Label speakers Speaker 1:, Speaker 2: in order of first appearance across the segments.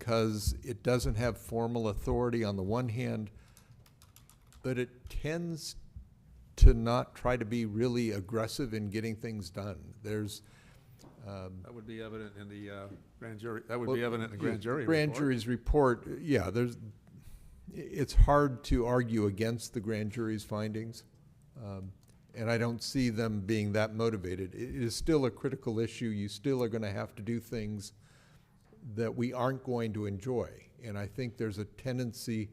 Speaker 1: because it doesn't have formal authority on the one hand, but it tends to not try to be really aggressive in getting things done. There's, um,
Speaker 2: That would be evident in the uh, grand jury, that would be evident in the grand jury
Speaker 1: Grand
Speaker 2: report.
Speaker 1: jury's report, yeah, there's, i- it's hard to argue against the grand jury's findings. um, And I don't see them being that motivated. It it is still a critical issue. You still are gonna have to do things that we aren't going to enjoy. And I think there's a tendency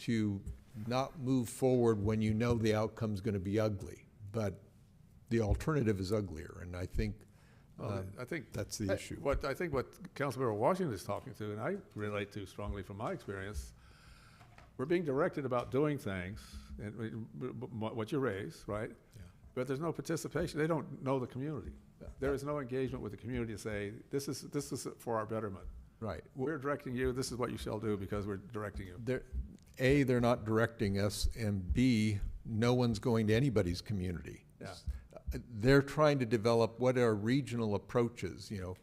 Speaker 1: to not move forward when you know the outcome's gonna be ugly. But the alternative is uglier, and I think
Speaker 2: Well,
Speaker 1: um,
Speaker 2: I think.
Speaker 1: that's the issue.
Speaker 2: What, I think what Councilmember Washington is talking to, and I relate to strongly from my experience, we're being directed about doing things, and we- b- b- what you raise, right?
Speaker 1: Yeah.
Speaker 2: But there's no participation, they don't know the community. There is no engagement with the community to say, this is, this is for our betterment.
Speaker 1: Right.
Speaker 2: We're directing you, this is what you shall do because we're directing you.
Speaker 1: They're, A, they're not directing us, and B, no one's going to anybody's community. uh,
Speaker 2: Yeah.
Speaker 1: They're trying to develop what are regional approaches, you know?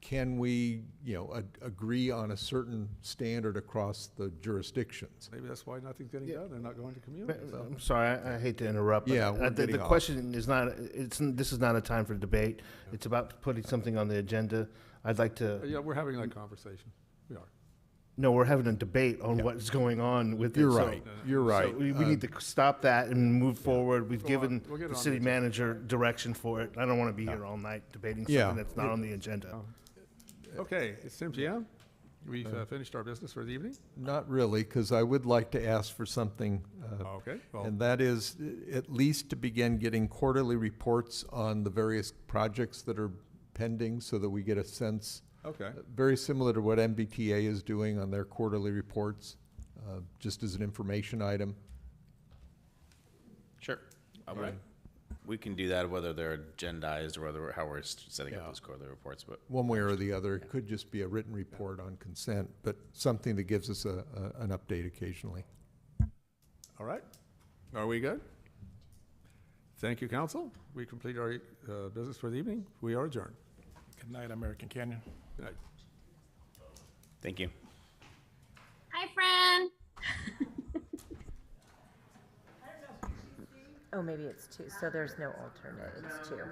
Speaker 1: Can we, you know, a- agree on a certain standard across the jurisdictions?
Speaker 2: Maybe that's why nothing's getting
Speaker 3: Yeah.
Speaker 2: done, they're not going to
Speaker 3: Ma-
Speaker 2: community. so.
Speaker 1: um,
Speaker 3: I'm um, sorry, I, I hate to interrupt. but
Speaker 1: Yeah,
Speaker 3: I
Speaker 1: we're
Speaker 3: think
Speaker 1: getting
Speaker 3: The
Speaker 1: off.
Speaker 3: question is not, it's, n- this is not a time for debate. It's about putting something on the agenda. I'd like to,
Speaker 2: Yeah, we're having that conversation, we are.
Speaker 3: no, we're having a debate on
Speaker 1: Yeah.
Speaker 3: what's going on with it.
Speaker 1: You're
Speaker 3: so- uh,
Speaker 1: right, you're right. Uh,
Speaker 3: So we, we need to stop that and move forward. We've
Speaker 2: Go on,
Speaker 3: given
Speaker 2: we'll get it
Speaker 3: the
Speaker 2: on the
Speaker 3: city
Speaker 2: agenda.
Speaker 3: manager direction for it. I don't want to be here all night debating
Speaker 1: Yeah.
Speaker 3: something that's not on the agenda.
Speaker 2: Oh. Okay, it's 10 PM. We've uh, finished our business for the evening.
Speaker 1: Not really, because I would like to ask for something, uh,
Speaker 3: Oh,
Speaker 2: Okay, well,
Speaker 1: and that is uh, at least to begin getting quarterly reports on the various projects that are pending so that we get a sense
Speaker 2: okay,
Speaker 1: Very similar to what MBTA is doing on their quarterly reports, uh, just as an information item.
Speaker 4: Sure. I
Speaker 2: All right.
Speaker 4: mean, We can do that, whether they're agendized or whether, how we're s- setting up
Speaker 1: Yeah.
Speaker 4: those quarterly reports, but
Speaker 1: One way or the other, it could just be a written report on consent, but something that gives us a, a- an update occasionally.
Speaker 2: all right. Are we good? Thank you, council. We complete our uh, business for the evening. We are adjourned.
Speaker 5: Good night, American Canyon.
Speaker 2: Good night.
Speaker 4: thank you.
Speaker 6: Hi, friend.
Speaker 7: Oh, maybe it's two, so there's no alternate, it's two.